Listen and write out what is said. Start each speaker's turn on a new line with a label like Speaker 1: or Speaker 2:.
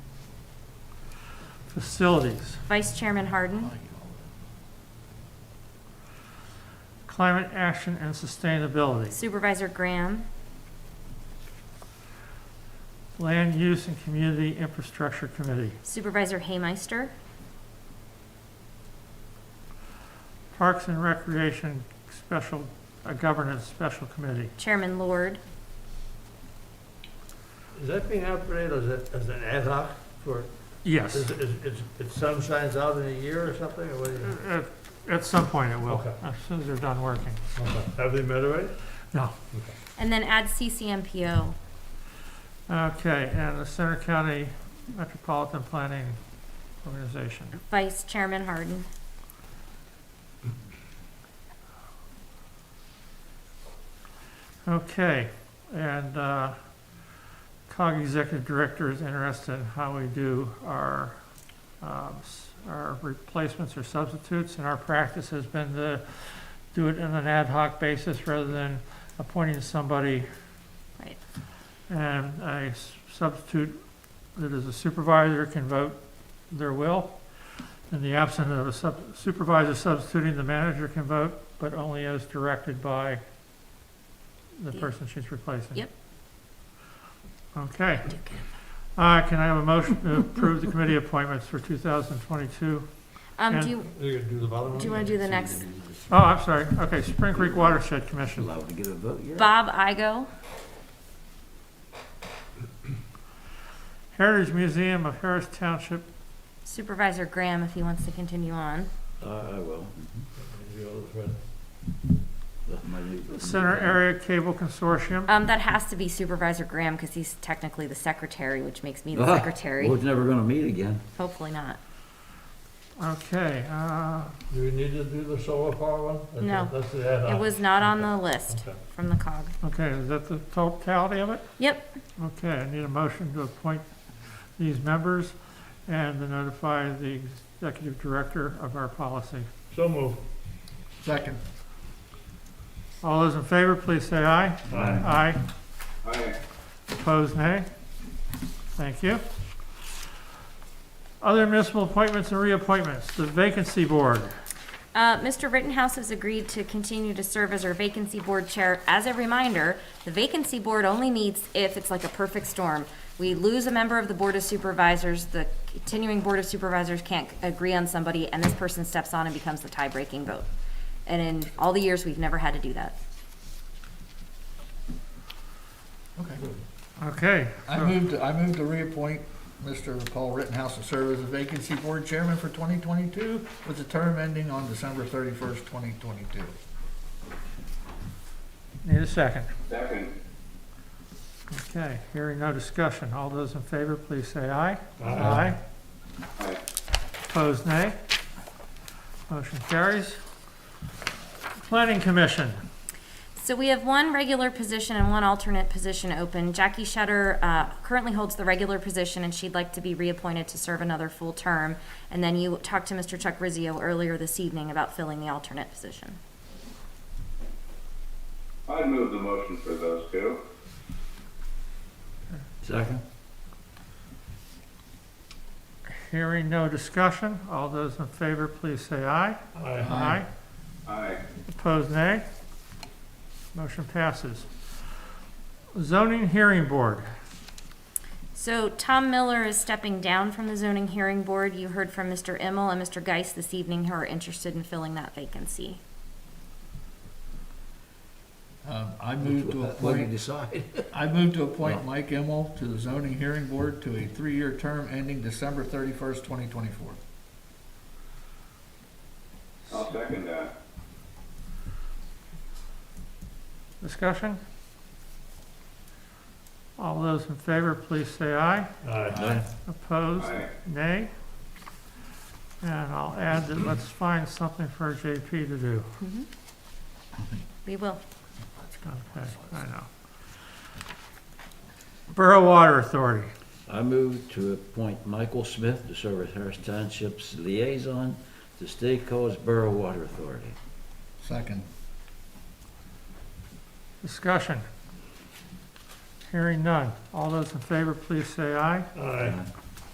Speaker 1: Facilities,
Speaker 2: Vice Chairman Harden,
Speaker 1: Climate Action and Sustainability,
Speaker 2: Supervisor Graham,
Speaker 1: Land Use and Community Infrastructure Committee,
Speaker 2: Supervisor Haymeister,
Speaker 1: Parks and Recreation Special, uh, Governance Special Committee.
Speaker 2: Chairman Lord,
Speaker 3: Is that being operated as, a- as an ad hoc for,
Speaker 1: Yes,
Speaker 3: is, is, is- is some signs out in a year or something, or what do you?
Speaker 1: at, at some point it will,
Speaker 3: Okay.
Speaker 1: as soon as they're done working.
Speaker 4: Mm.
Speaker 3: Okay. Have they met already?
Speaker 1: No.
Speaker 2: and then add CCMPO.
Speaker 1: Okay, and the Center County Metropolitan Planning Organization,
Speaker 2: Vice Chairman Harden,
Speaker 1: Okay, and uh, COG Executive Director is interested in how we do our, um, s- our replacements or substitutes. And our practice has been to do it on an ad hoc basis rather than appointing somebody.
Speaker 2: Right.
Speaker 1: And a s- substitute that is a supervisor can vote their will. In the absence of a sub- supervisor substituting, the manager can vote, but only as directed by the
Speaker 2: Yeah.
Speaker 1: person she's replacing.
Speaker 2: Yep.
Speaker 1: Okay. Uh, can I have a motion to approve the committee appointments for 2022?
Speaker 2: Um,
Speaker 1: And-
Speaker 2: do you,
Speaker 3: You're gonna do the bottom one?
Speaker 2: do you want to do the next?
Speaker 1: Oh, I'm sorry. Okay, Spring Creek Watershed Commission.
Speaker 5: Allowed to get a vote, yeah?
Speaker 2: Bob Igo,
Speaker 1: Heritage Museum of Harris Township.
Speaker 2: Supervisor Graham, if he wants to continue on.
Speaker 5: I I will. Mhm. That's my new-
Speaker 1: Center Area Cable Consortium.
Speaker 2: Um, that has to be Supervisor Graham because he's technically the secretary, which makes me the
Speaker 5: Ah, Well,
Speaker 2: secretary.
Speaker 5: it's never gonna meet again.
Speaker 2: Hopefully not.
Speaker 1: Okay, uh,
Speaker 3: Do we need to do the solar power one? That's-
Speaker 2: No.
Speaker 3: That's the ad hoc.
Speaker 2: It was not on the list
Speaker 3: Okay.
Speaker 2: from the cog.
Speaker 1: okay, is that the totality of it?
Speaker 2: Yep,
Speaker 1: Okay, I need a motion to appoint these members and to notify the executive director of our policy.
Speaker 3: So moved.
Speaker 4: Second.
Speaker 1: All those in favor, please say aye.
Speaker 5: Aye.
Speaker 1: Aye. Opposed, nay. Thank you. Other municipal appointments and reappointments, the vacancy board.
Speaker 2: Uh, Mr. Rittenhouse has agreed to continue to serve as our vacancy board chair. As a reminder, the vacancy board only meets if it's like a perfect storm. We lose a member of the Board of Supervisors, the continuing Board of Supervisors can't agree on somebody, and this person steps on and becomes the tie-breaking vote. And in all the years, we've never had to do that.
Speaker 4: Okay.
Speaker 1: Okay,
Speaker 4: I moved, I moved to reappoint Mr. Paul Rittenhouse to serve as a vacancy board chairman for 2022 with the term ending on December 31st, 2022.
Speaker 1: need a second.
Speaker 6: Second.
Speaker 1: Okay, hearing no discussion. All those in favor, please say aye. Aye.
Speaker 6: Aye.
Speaker 1: Opposed, nay. Motion carries. Planning Commission.
Speaker 2: So we have one regular position and one alternate position open. Jackie Shutter uh, currently holds the regular position, and she'd like to be reappointed to serve another full term. And then you talked to Mr. Chuck Rizzio earlier this evening about filling the alternate position.
Speaker 6: I'd move the motion for those two.
Speaker 5: Second?
Speaker 1: Hearing no discussion. All those in favor, please say aye.
Speaker 3: Aye.
Speaker 1: Aye.
Speaker 6: Aye.
Speaker 1: Opposed, nay. Motion passes. Zoning Hearing Board.
Speaker 2: So Tom Miller is stepping down from the zoning hearing board. You heard from Mr. Immel and Mr. Geis this evening who are interested in filling that vacancy.
Speaker 4: Um, I moved to
Speaker 5: What do you
Speaker 4: appoint,
Speaker 5: decide?
Speaker 4: I moved to appoint Mike Emmel to the zoning hearing board to a three-year term ending December 31st, 2024.
Speaker 6: I'll second that.
Speaker 1: Discussion? All those in favor, please say aye.
Speaker 3: Aye.
Speaker 1: Opposed?
Speaker 6: Aye.
Speaker 1: Nay? And I'll add that let's find something for JP to do.
Speaker 2: We will.
Speaker 1: Okay, I know. Borough Water Authority.
Speaker 5: I move to appoint Michael Smith to serve as Harris Township's liaison to State College Borough Water Authority.
Speaker 4: Second.
Speaker 1: Discussion. Hearing none. All those in favor, please say aye.
Speaker 3: Aye.